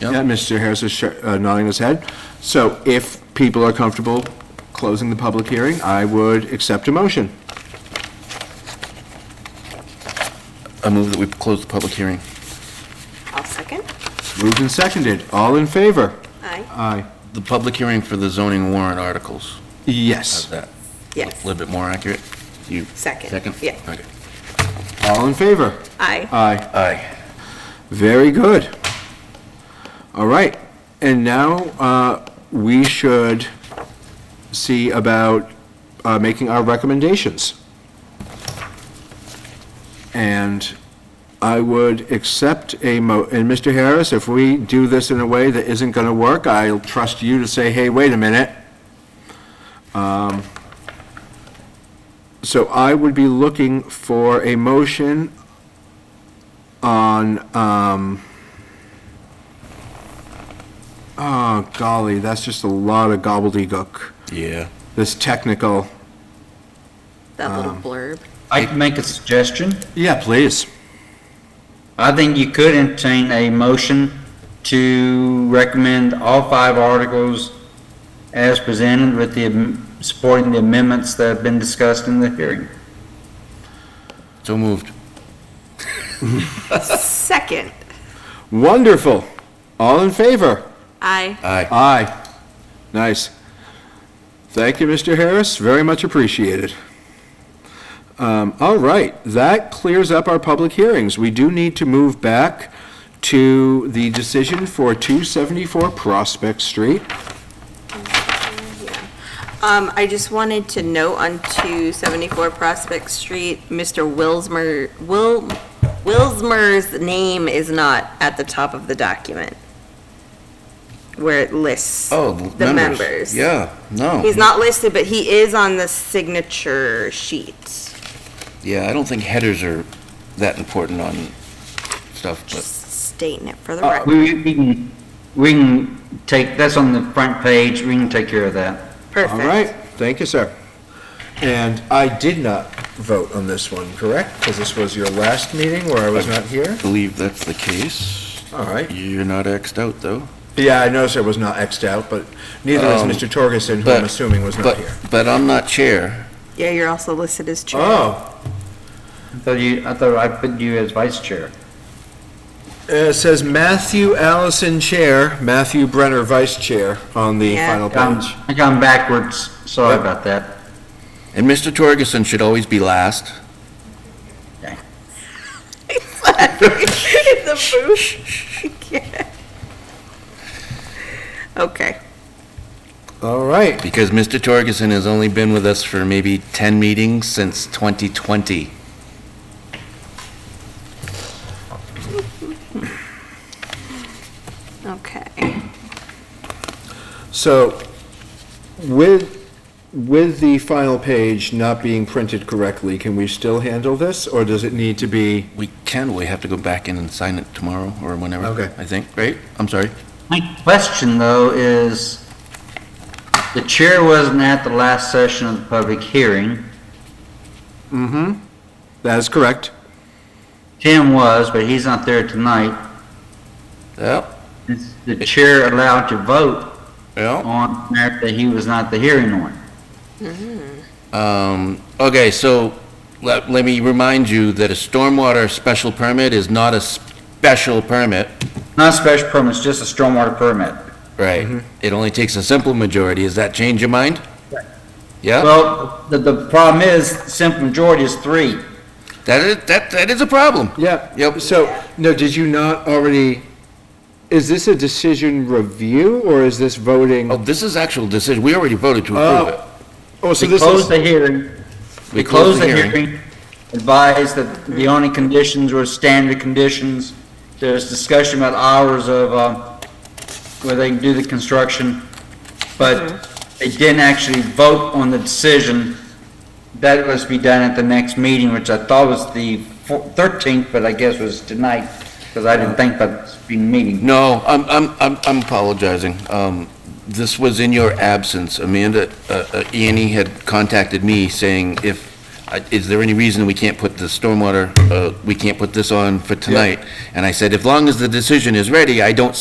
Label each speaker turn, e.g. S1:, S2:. S1: Yep.
S2: that Mr. Harris is sh- uh, nodding his head. So if people are comfortable closing the public hearing, I would accept a motion.
S1: I move that we close the public hearing.
S3: I'll second.
S2: Moved and seconded. All in favor?
S3: Aye.
S2: Aye.
S1: The public hearing for the zoning warrant articles. How's
S2: Yes.
S1: that? A
S3: Yes.
S1: little bit more accurate? You?
S3: Second.
S1: Second?
S3: Yeah.
S1: Okay.
S2: All in favor?
S3: Aye.
S2: Aye.
S1: Aye.
S2: Very good. All right, and now uh, we should see about uh, making our recommendations. And I would accept a mo, and Mr. Harris, if we do this in a way that isn't going to work, I'll trust you to say, hey, wait a minute. Um, So I would be looking for a motion on, um, oh golly, that's just a lot of gobbledygook,
S1: Yeah.
S2: this technical.
S3: That little blurb.
S4: I can make a suggestion.
S2: Yeah, please.
S4: I think you could entertain a motion to recommend all five articles as presented with the, am- supporting the amendments that have been discussed in the hearing.
S1: So moved.
S3: Second.
S2: Wonderful. All in favor?
S3: Aye.
S1: Aye.
S2: Aye. Nice. Thank you, Mr. Harris. Very much appreciated. Um, all right, that clears up our public hearings. We do need to move back to the decision for 274 Prospect Street.
S3: Um, I just wanted to note on 274 Prospect Street, Mr. Wilsmer, Will, Wilsmer's name is not at the top of the document where it lists.
S1: Oh,
S3: The members.
S1: Yeah, no.
S3: He's not listed, but he is on the signature sheet.
S1: Yeah, I don't think headers are that important on stuff, but
S3: Just stating it for the
S4: Oh.
S1: Uh,
S3: record.
S4: We, we can, we can take, that's on the front page, we can take care of that.
S2: All
S3: Perfect.
S2: right, thank you, sir. And I did not vote on this one, correct? Because this was your last meeting where I was not here?
S1: I believe that's the case.
S2: All right.
S1: You're not Xed out, though.
S2: Yeah, I noticed I was not Xed out, but neither was
S1: Um,
S2: Mr. Torgerson, who
S1: but-
S2: I'm assuming was not
S1: But,
S2: here.
S1: but I'm not chair.
S3: Yeah, you're also listed as chair.
S2: Oh,
S4: I thought you, I thought I put you as vice chair.
S2: it says Matthew Allison Chair, Matthew Brenner Vice Chair on the
S3: Yeah.
S2: final
S4: I'm-
S2: page.
S4: I gone backwards, sorry
S2: Yep.
S4: about that.
S1: And Mr. Torgerson should always be last.
S3: In the booth. I can't. Okay.
S2: All right,
S1: Because Mr. Torgerson has only been with us for maybe 10 meetings since 2020.
S3: Okay.
S2: so with, with the final page not being printed correctly, can we still handle this, or does it need to be?
S1: We can, we have to go back in and sign it tomorrow or whenever.
S2: Okay.
S1: I think, right? I'm sorry.
S4: My question, though, is, the chair wasn't at the last session of the public hearing.
S2: Mm-hmm. That is correct.
S4: Tim was, but he's not there tonight.
S1: Yep,
S4: Is the chair allowed to vote
S1: yep.
S4: on that that he was not the hearing on?
S1: Um, okay, so let, let me remind you that a stormwater special permit is not a special permit.
S4: Not a special permit, it's just a stormwater permit.
S1: Right. It only takes a simple majority. Does that change your mind? Yeah,
S4: Well, the, the problem is, simple majority is three.
S1: that is, that, that is a problem.
S2: Yeah.
S1: Yep.
S2: So, no, did you not already, is this a decision review or is this voting?
S1: Oh, this is actual decision. We already voted to
S2: Oh,
S1: approve it.
S2: Oh,
S4: We closed the hearing.
S1: We closed the hearing.
S4: Advised that the only conditions were standard conditions. There's discussion about hours of, uh, where they can do the construction, but they didn't actually vote on the decision. That was to be done at the next meeting, which I thought was the four- 13th, but I guess was tonight, because I
S1: Uh,
S4: didn't think that was being meeting.
S1: No, I'm, I'm, I'm I'm apologizing. Um, this was in your absence. Amanda, uh, uh, Annie had contacted me saying if, I- is there any reason we can't put the stormwater, uh, we can't put this on for tonight? And I said, as long as the decision is ready, I don't